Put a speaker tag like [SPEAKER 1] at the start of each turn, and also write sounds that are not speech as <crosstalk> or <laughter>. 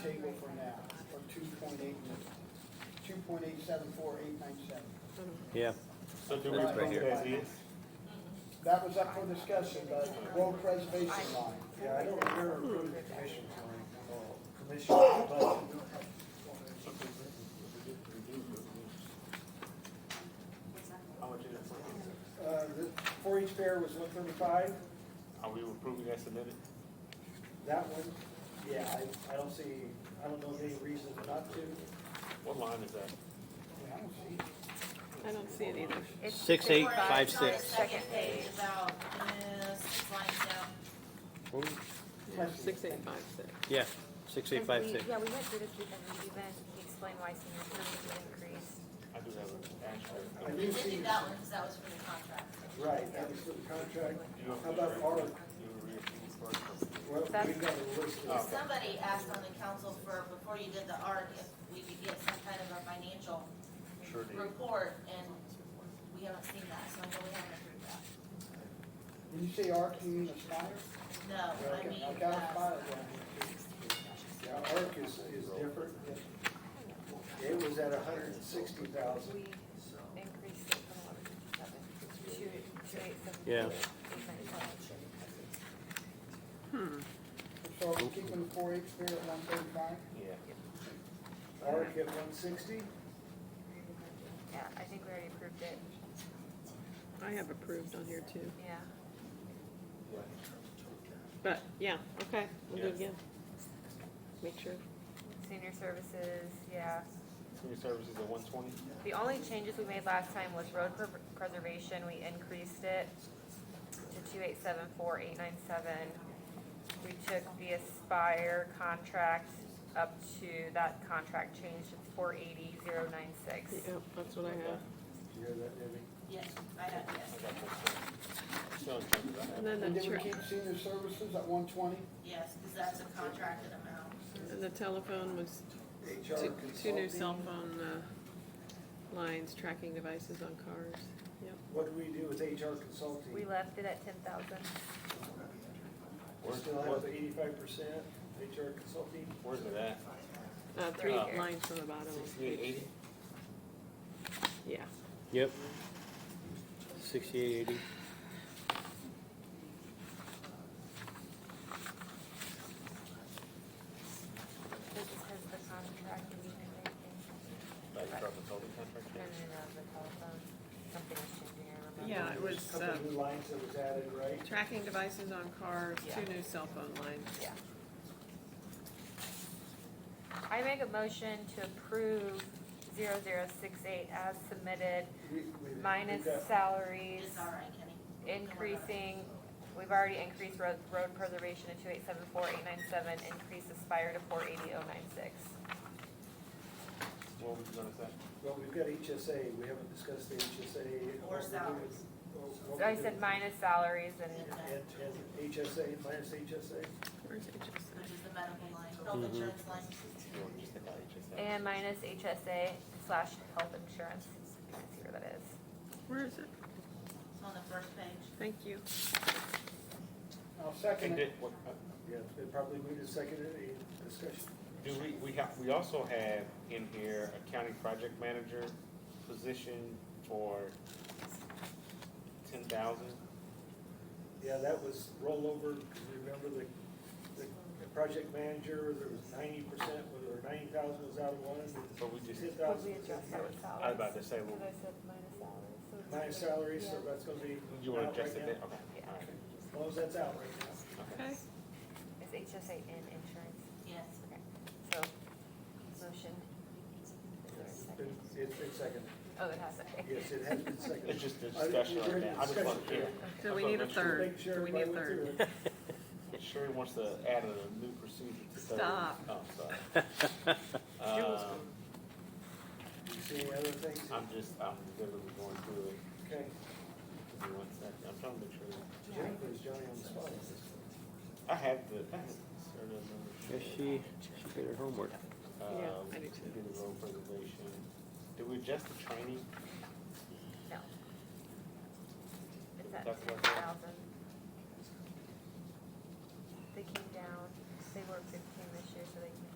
[SPEAKER 1] table for now, for two point eight, two point eight seven four eight nine seven.
[SPEAKER 2] Yeah.
[SPEAKER 3] So do we
[SPEAKER 2] That's right
[SPEAKER 3] vote
[SPEAKER 2] here.
[SPEAKER 3] as is?
[SPEAKER 1] That was up for discussion, the road preservation line.
[SPEAKER 4] Yeah, I don't hear approved commissions or commission budget.
[SPEAKER 3] How much is it for?
[SPEAKER 1] Uh, the four each fair was one thirty-five,
[SPEAKER 3] Are we approving that submitted?
[SPEAKER 1] that one, yeah, I, I don't see, I don't know of any reason not to.
[SPEAKER 3] What line is that?
[SPEAKER 1] I don't see.
[SPEAKER 5] I don't see it either.
[SPEAKER 2] Six, eight, five,
[SPEAKER 6] It's on the
[SPEAKER 2] six.
[SPEAKER 6] Second page, about, uh, six lines down.
[SPEAKER 5] Yeah, Six, eight, five, six.
[SPEAKER 2] Yeah, six, eight, five, six.
[SPEAKER 7] Yeah, we went through this weekend with event, he explained why senior services increased.
[SPEAKER 3] I do have an
[SPEAKER 1] I
[SPEAKER 3] actual.
[SPEAKER 1] do
[SPEAKER 6] We did
[SPEAKER 1] see,
[SPEAKER 6] do that one, because that was for the contract.
[SPEAKER 1] right, that was for the contract.
[SPEAKER 3] Do you have
[SPEAKER 1] How about
[SPEAKER 3] to-
[SPEAKER 1] our,
[SPEAKER 3] You reapprove first.
[SPEAKER 1] well, we got
[SPEAKER 7] That's-
[SPEAKER 1] a list of.
[SPEAKER 3] Okay.
[SPEAKER 6] Somebody asked on the council for, before you did the ARC, if we could get some kind of a financial
[SPEAKER 3] Sure do.
[SPEAKER 6] report, and we haven't seen that, so I know we haven't approved that.
[SPEAKER 1] Did you say ARC, you mean Aspire?
[SPEAKER 6] No, I mean,
[SPEAKER 1] Okay, I got Aspire
[SPEAKER 6] uh,
[SPEAKER 1] down here
[SPEAKER 6] I
[SPEAKER 1] too. Yeah, ARC is, is different.
[SPEAKER 4] It was at a hundred and sixty thousand.
[SPEAKER 7] We increased it from eleven to seven, two, two eight seven.
[SPEAKER 2] Yeah.
[SPEAKER 1] So are we keeping the four H fair at one thirty-five?
[SPEAKER 3] Yeah.
[SPEAKER 4] Arc at one sixty?
[SPEAKER 7] Yeah, I think we already approved it,
[SPEAKER 5] I have approved on here too.
[SPEAKER 7] yeah.
[SPEAKER 5] But, yeah, okay, we'll do it
[SPEAKER 3] Yeah.
[SPEAKER 5] again. Make sure.
[SPEAKER 7] Senior services, yeah.
[SPEAKER 3] Senior services at one twenty?
[SPEAKER 7] The only changes we made last time was road pre- preservation, we increased it to two eight seven four eight nine seven. We took the Aspire contract up to, that contract changed, it's four eighty zero nine six.
[SPEAKER 5] Yep, that's what I have.
[SPEAKER 4] You hear that, Debbie?
[SPEAKER 6] yes, I have, yes,
[SPEAKER 3] Still in charge of that.
[SPEAKER 5] And then
[SPEAKER 1] And
[SPEAKER 5] the,
[SPEAKER 1] did we
[SPEAKER 5] tr-
[SPEAKER 1] keep senior services at one twenty?
[SPEAKER 6] yes, because that's a contracted amount.
[SPEAKER 5] and the telephone was
[SPEAKER 4] HR
[SPEAKER 5] two, two new
[SPEAKER 4] consulting.
[SPEAKER 5] cell phone, uh, lines, tracking devices on cars. Yep.
[SPEAKER 4] What do we do with HR consulting?
[SPEAKER 7] We left it at ten thousand.
[SPEAKER 4] We still have eighty-five percent HR consulting?
[SPEAKER 3] Where's it at?
[SPEAKER 5] Uh, three
[SPEAKER 3] Right here.
[SPEAKER 5] lines from the bottom. of
[SPEAKER 3] Sixty-eight
[SPEAKER 5] each.
[SPEAKER 3] eighty?
[SPEAKER 5] Yeah,
[SPEAKER 2] Yep. Sixty-eight, eighty.
[SPEAKER 3] <laughs>
[SPEAKER 7] This is because the contract we didn't make
[SPEAKER 3] Like, drop the total contract?
[SPEAKER 7] No, no, no, the telephone, something was changing, I remember.
[SPEAKER 5] Yeah, it was,
[SPEAKER 4] Couple
[SPEAKER 5] um,
[SPEAKER 4] new lines that was added, right?
[SPEAKER 5] tracking devices on cars,
[SPEAKER 7] Yeah.
[SPEAKER 5] two new cell phone lines.
[SPEAKER 7] Yeah. I make a motion to approve zero zero six eight as submitted,
[SPEAKER 4] We- we-
[SPEAKER 7] minus
[SPEAKER 4] we've got-
[SPEAKER 7] salaries,
[SPEAKER 6] It's all right, Kenny.
[SPEAKER 7] increasing, we've already increased road, road preservation to two eight seven four eight nine seven, increase Aspire to four eighty oh nine six.
[SPEAKER 3] What was it gonna say?
[SPEAKER 4] Well, we've got HSA, we haven't discussed the HSA.
[SPEAKER 6] Or salaries.
[SPEAKER 4] oh,
[SPEAKER 7] So I said minus salaries and,
[SPEAKER 4] And, and HSA, minus HSA?
[SPEAKER 5] Where's HSA?
[SPEAKER 6] Which is the medical line, health insurance line.
[SPEAKER 7] and minus HSA slash health insurance, I can see where that is.
[SPEAKER 5] Where is it?
[SPEAKER 6] It's on the first page.
[SPEAKER 5] Thank you.
[SPEAKER 1] I'll
[SPEAKER 3] And
[SPEAKER 1] second
[SPEAKER 3] did,
[SPEAKER 1] it.
[SPEAKER 3] what, uh,
[SPEAKER 4] Yeah, it's been probably moved and seconded, any discussion?
[SPEAKER 3] do we, we have, we also have in here a county project manager position for ten thousand?
[SPEAKER 4] Yeah, that was rollover, because remember the, the the project manager, there was ninety percent, or ninety thousand was out of one,
[SPEAKER 3] So we just,
[SPEAKER 4] ten
[SPEAKER 7] Would
[SPEAKER 4] thousand.
[SPEAKER 7] we adjust that with
[SPEAKER 3] I was
[SPEAKER 7] salaries?
[SPEAKER 3] about to say, well,
[SPEAKER 7] Because I said minus salaries, so it's-
[SPEAKER 4] Minus salary, so that's gonna be.
[SPEAKER 3] you wanna
[SPEAKER 4] out right
[SPEAKER 3] adjust it,
[SPEAKER 4] now.
[SPEAKER 3] then? okay,
[SPEAKER 7] Yeah.
[SPEAKER 3] all right.
[SPEAKER 4] As long as that's out right now.
[SPEAKER 5] Okay.
[SPEAKER 7] Is HSA in insurance?
[SPEAKER 6] Yes.
[SPEAKER 7] Okay, so, motion. Is there a second?
[SPEAKER 4] It's, it's been seconded,
[SPEAKER 7] Oh, it has, okay.
[SPEAKER 4] yes, it has
[SPEAKER 7] <laughs>
[SPEAKER 4] been
[SPEAKER 3] It's
[SPEAKER 4] seconded.
[SPEAKER 3] just a
[SPEAKER 4] I-
[SPEAKER 3] discussion
[SPEAKER 4] we're
[SPEAKER 3] right
[SPEAKER 4] in
[SPEAKER 3] now, I just want to,
[SPEAKER 4] discussion.
[SPEAKER 3] yeah.
[SPEAKER 5] So we need a third.
[SPEAKER 4] Make
[SPEAKER 5] Do
[SPEAKER 4] sure
[SPEAKER 5] we need a
[SPEAKER 4] everybody went
[SPEAKER 5] third?
[SPEAKER 4] through it.
[SPEAKER 3] Sherry wants to add a new procedure to third.
[SPEAKER 5] Stop.
[SPEAKER 3] Oh,
[SPEAKER 2] <laughs>
[SPEAKER 3] sorry. Um,
[SPEAKER 4] You see any other things?
[SPEAKER 3] I'm just, I'm literally going through it,
[SPEAKER 4] Okay.
[SPEAKER 3] give me one second, I'm trying to make sure.
[SPEAKER 4] Jenny puts Johnny on the spot.
[SPEAKER 3] I have the, I have the serial number.
[SPEAKER 2] Yes, she, she did her homework.
[SPEAKER 3] Um,
[SPEAKER 5] Yeah, I do too.
[SPEAKER 3] did the road preservation. Did we adjust the training?
[SPEAKER 7] No. It's at
[SPEAKER 3] That's what-
[SPEAKER 7] ten thousand. They came down, they were fifteen